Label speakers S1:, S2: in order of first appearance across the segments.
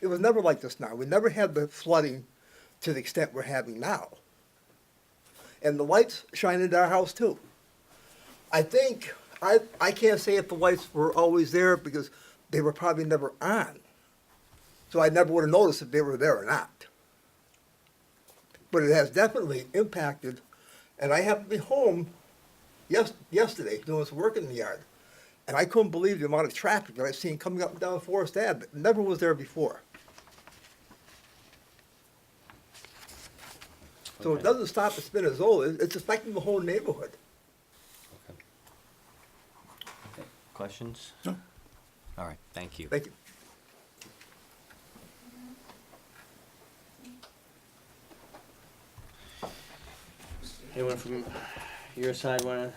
S1: It was never like this now. We never had the flooding to the extent we're having now. And the lights shine into our house too. I think, I, I can't say if the lights were always there because they were probably never on. So I never would have noticed if they were there or not. But it has definitely impacted, and I happened to be home yes, yesterday doing some work in the yard. And I couldn't believe the amount of traffic that I've seen coming up and down Forest Ave. It never was there before. So it
S2: Okay.
S1: doesn't stop at Spinizzola. It's affecting the whole neighborhood.
S2: Questions? No. All right, thank you.
S1: Thank you.
S2: Anyone from your side wanna?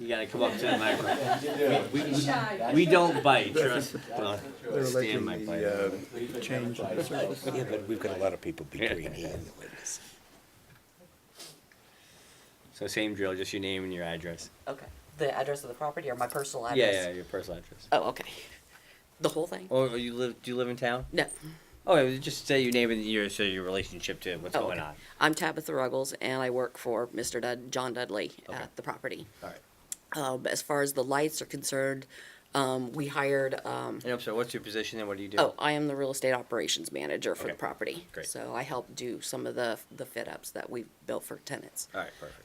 S2: You gotta come up to the microphone. We don't bite, trust. well, Stan might bite.
S3: Yeah, but we've got a lot of people between here and the witness.
S2: So same drill, just your name and your address.
S4: Okay. The address of the property or my personal address?
S2: Yeah, yeah, your personal address.
S4: Oh, okay. The whole thing?
S2: Or Oh, you live? Do you live in town?
S4: No.
S2: Oh, yeah, just say your name and your so your relationship to what's
S4: Oh,
S2: going
S4: okay.
S2: on.
S4: I'm Tabitha Ruggles and I work for Mr. Dud, John Dudley
S2: Okay.
S4: at the property.
S2: All right.
S4: Um, as far as the lights are concerned, um, we hired, um,
S2: And I'm sorry. What's your position and what do you do?
S4: oh, I am the real estate operations manager for the
S2: Okay.
S4: property.
S2: Great.
S4: So I help do some of the, the fit ups that we've built for tenants.
S2: All right. Perfect.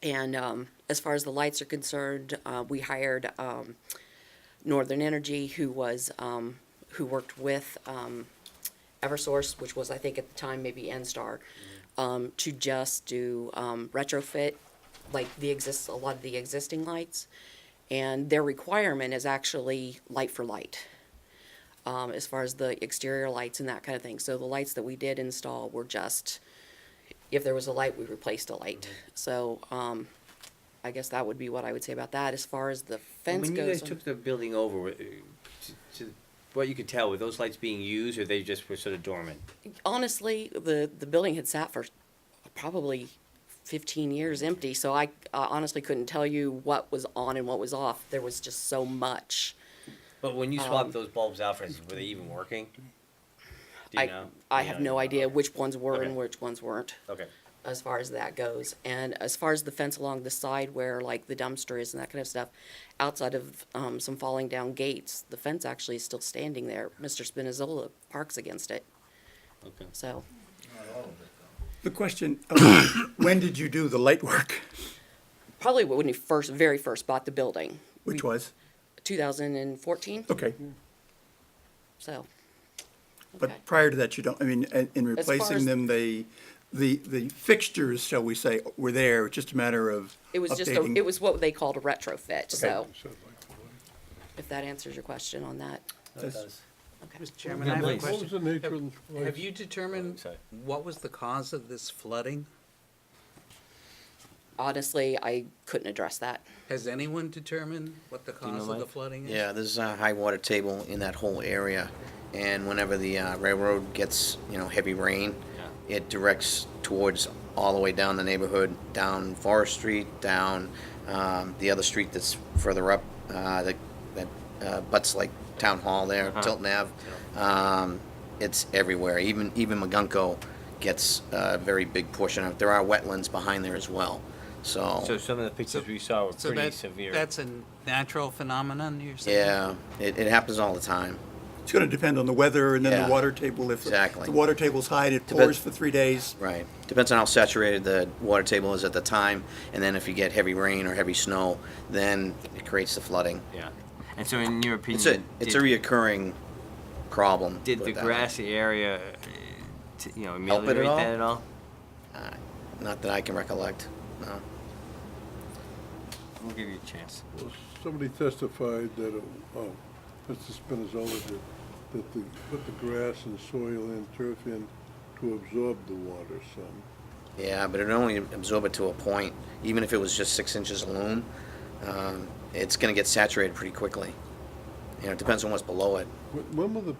S4: And um, as far as the lights are concerned, uh, we hired um, Northern Energy, who was um, who worked with um, EverSource, which was I think at the time maybe NStar, um, to just do um, retrofit like the exist a lot of the existing lights, and their requirement is actually light for light. Um, as far as the exterior lights and that kind of thing. So the lights that we did install were just if there was a light, we replaced a light. So, um, I guess that would be what I would say about that. As far as the fence
S2: when you
S4: goes,
S2: guys
S4: um,
S2: took the building over, were, uh, to, to what you could tell, were those lights being used or they just were sort of dormant?
S4: honestly, the, the building had sat for probably fifteen years empty, so I uh, honestly couldn't tell you what was on and what was off. There was just so much.
S2: But when you swapped those bulbs out, for instance, were they even working? Do you
S4: I,
S2: know?
S4: I
S2: You
S4: have
S2: know,
S4: no
S2: you-
S4: idea which ones were and
S2: Okay.
S4: which ones weren't,
S2: Okay.
S4: as far as that goes. And as far as the fence along the side where like the dumpster is and that kind of stuff, outside of, um, some falling down gates, the fence actually is still standing there. Mr. Spinizzola parks against it,
S2: Okay.
S4: so.
S5: The question, of when did you do the light work?
S4: Probably when we first, very first bought the building,
S5: Which was?
S4: two thousand and fourteen,
S5: Okay,
S4: so. Okay.
S5: but prior to that, you don't, I mean, in- in
S4: As far as-
S5: replacing them, they, the, the fixtures, shall we say, were there, it's just a matter of
S4: It was just, a
S5: updating.
S4: it was what they called a retrofit, so. If that answers your question on that,
S5: That's-
S4: okay.
S6: Mr. Chairman, I have a
S2: Please.
S6: question.
S7: the nature of the
S6: Have you determined
S2: Sorry.
S6: what was the cause of this flooding?
S4: Honestly, I couldn't address that.
S6: Has anyone determined what the
S2: you know,
S6: cause of the
S2: Mike?
S6: flooding is?
S8: Yeah, there's a high water table in that whole area, and whenever the uh, railroad gets, you know, heavy rain,
S2: Yeah.
S8: it directs towards all the way down the neighborhood, down Forest Street, down um, the other street that's further up, uh, that that uh, butts like Town Hall there,
S2: Uh-huh.
S8: Tilton Ave. Um, It's everywhere, even, even Magunko gets a very big portion of, it. there are wetlands behind there as well,
S2: So some of the pictures we saw were
S6: So
S2: pretty
S6: that-
S2: severe.
S6: That's a natural phenomenon, you're saying?
S8: Yeah, it, it happens all the time.
S5: It's gonna depend on the weather and then
S8: Yeah.
S5: the water table, if the-
S8: Exactly.
S5: the water table's high and it pours
S8: Depends-
S5: for three days.
S8: Right. Depends on how saturated the water table is at the time, and then if you get heavy rain or heavy snow, then it creates the flooding.
S2: yeah. And so, in your opinion,
S8: It's a it's a
S2: did-
S8: reoccurring problem.
S2: Did
S8: put
S2: the
S8: it that way.
S2: grassy area, uh, t- you know,
S8: Help it at
S2: ameliorate
S8: all?
S2: that at all?
S8: Uh, not that I can recollect. No.
S2: We'll give you a chance.
S7: Somebody testified that, it- oh, Mr. Spinizzola did, that they put the grass and soil and turf in to absorb the water some.
S8: Yeah, but it only absorb it to a point. Even if it was just six inches of loam, um, it's going to get saturated pretty quickly. You know, it depends on what's below it.
S7: When- When will the